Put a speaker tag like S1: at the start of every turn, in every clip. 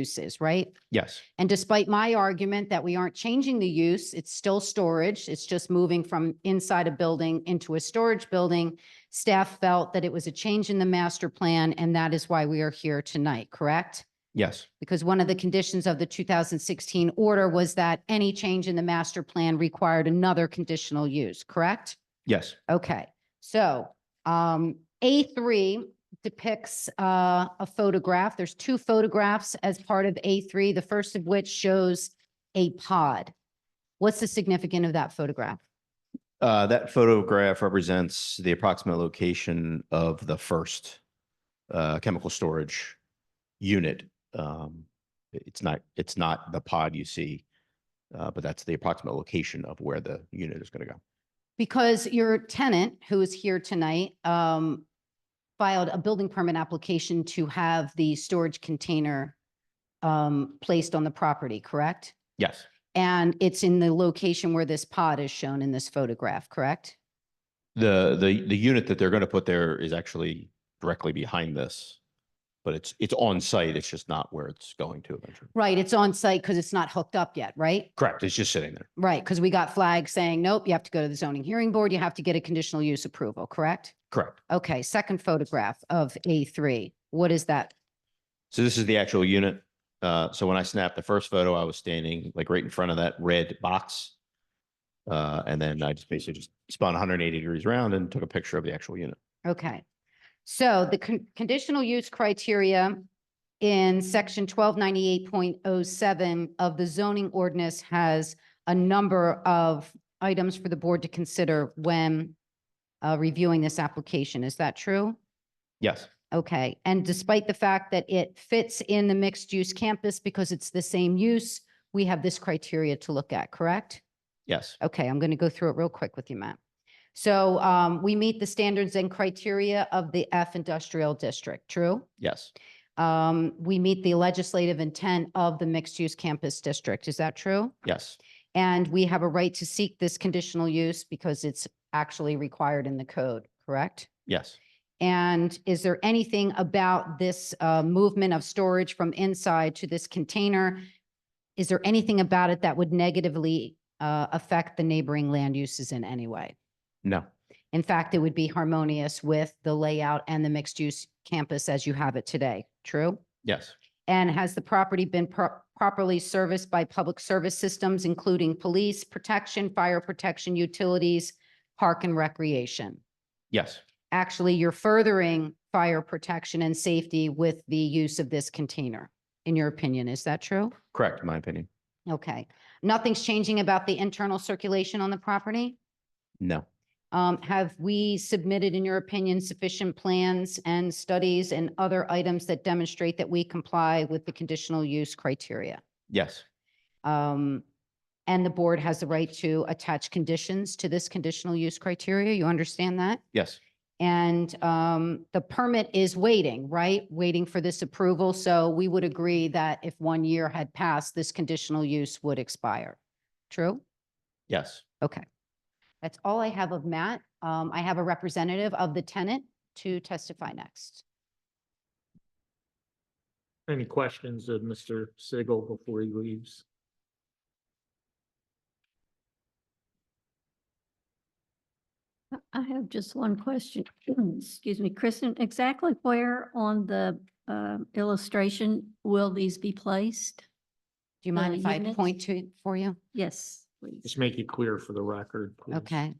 S1: uses, right?
S2: Yes,
S1: And despite my argument that we aren't changing the use, it's still storage. It's just moving from inside a building into a storage building. Staff felt that it was a change in the master plan, and that is why we are here tonight, correct?
S2: yes,
S1: Because one of the conditions of the two thousand sixteen order was that any change in the master plan required another conditional use, correct?
S2: yes,
S1: Okay, so um, A three depicts uh, a photograph. There's two photographs as part of A three, the first of which shows a pod. What's the significance of that photograph?
S2: Uh, that photograph represents the approximate location of the first uh, chemical storage unit. Um, i- It's not, it's not the pod you see, uh, but that's the approximate location of where the unit is going to go.
S1: Because your tenant, who is here tonight, um, filed a building permit application to have the storage container um, placed on the property, correct?
S2: Yes,
S1: And it's in the location where this pod is shown in this photograph, correct?
S2: the, the, the unit that they're going to put there is actually directly behind this. But it's, it's on site. It's just not where it's going to eventually.
S1: Right, it's on site because it's not hooked up yet, right?
S2: Correct. It's just sitting there.
S1: Right, because we got flags saying, nope, you have to go to the zoning hearing board, you have to get a conditional use approval, correct?
S2: Correct.
S1: Okay, second photograph of A three, what is that?
S2: So this is the actual unit. Uh, so when I snapped the first photo, I was standing like right in front of that red box. Uh, and then I just basically just spun hundred and eighty degrees around and took a picture of the actual unit.
S1: Okay. So the con- conditional use criteria in section twelve ninety-eight point oh seven of the zoning ordinance has a number of items for the board to consider when uh, reviewing this application. Is that true?
S2: Yes,
S1: Okay, and despite the fact that it fits in the mixed-use campus because it's the same use, we have this criteria to look at, correct?
S2: yes,
S1: Okay, I'm going to go through it real quick with you, Matt. So um, we meet the standards and criteria of the F industrial district, true?
S2: yes,
S1: Um, We meet the legislative intent of the mixed-use campus district, is that true?
S2: yes,
S1: And we have a right to seek this conditional use because it's actually required in the code, correct?
S2: yes,
S1: And is there anything about this uh, movement of storage from inside to this container? Is there anything about it that would negatively uh, affect the neighboring land uses in any way?
S2: no,
S1: In fact, it would be harmonious with the layout and the mixed-use campus as you have it today, true?
S2: yes,
S1: And has the property been pro- properly serviced by public service systems, including police protection, fire protection, utilities, park and recreation?
S2: yes,
S1: actually you're furthering fire protection and safety with the use of this container, in your opinion. Is that true?
S2: correct, in my opinion.
S1: Okay. Nothing's changing about the internal circulation on the property?
S2: No,
S1: Um, have we submitted, in your opinion, sufficient plans and studies and other items that demonstrate that we comply with the conditional use criteria?
S2: yes,
S1: Um, and the board has the right to attach conditions to this conditional use criteria. You understand that?
S2: yes,
S1: And um, the permit is waiting, right? Waiting for this approval. So we would agree that if one year had passed, this conditional use would expire. True?
S2: yes,
S1: Okay. That's all I have of Matt. Um, I have a representative of the tenant to testify next.
S3: Any questions of Mr. Sigel before he leaves?
S4: I have just one question. Excuse me, Kristen, exactly where on the um, illustration will these be placed?
S1: Do you mind
S4: Uh,
S1: if I
S4: units?
S1: point to it for you?
S4: Yes, please.
S3: Just make it clear for the record. please.
S1: Okay.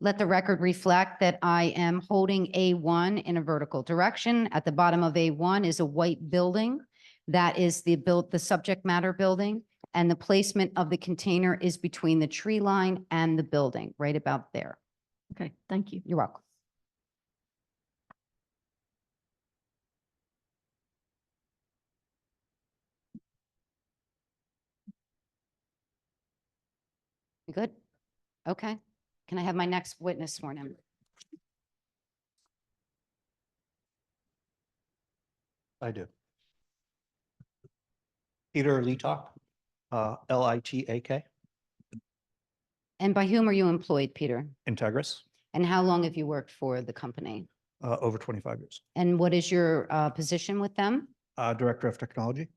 S1: Let the record reflect that I am holding A1 in a vertical direction. At the bottom of A1 is a white building. That is the built, the subject matter building. And the placement of the container is between the tree line and the building, right about there.
S4: Okay, thank you.
S1: You're welcome. You Good? Okay. Can I have my next witness sworn in?
S5: I do. Peter Litak, uh, L I T A K,
S1: And by whom are you employed, Peter?
S5: Integris,
S1: And how long have you worked for the company?
S5: uh, over twenty-five years,
S1: And what is your uh, position with them?
S5: uh, Director of Technology.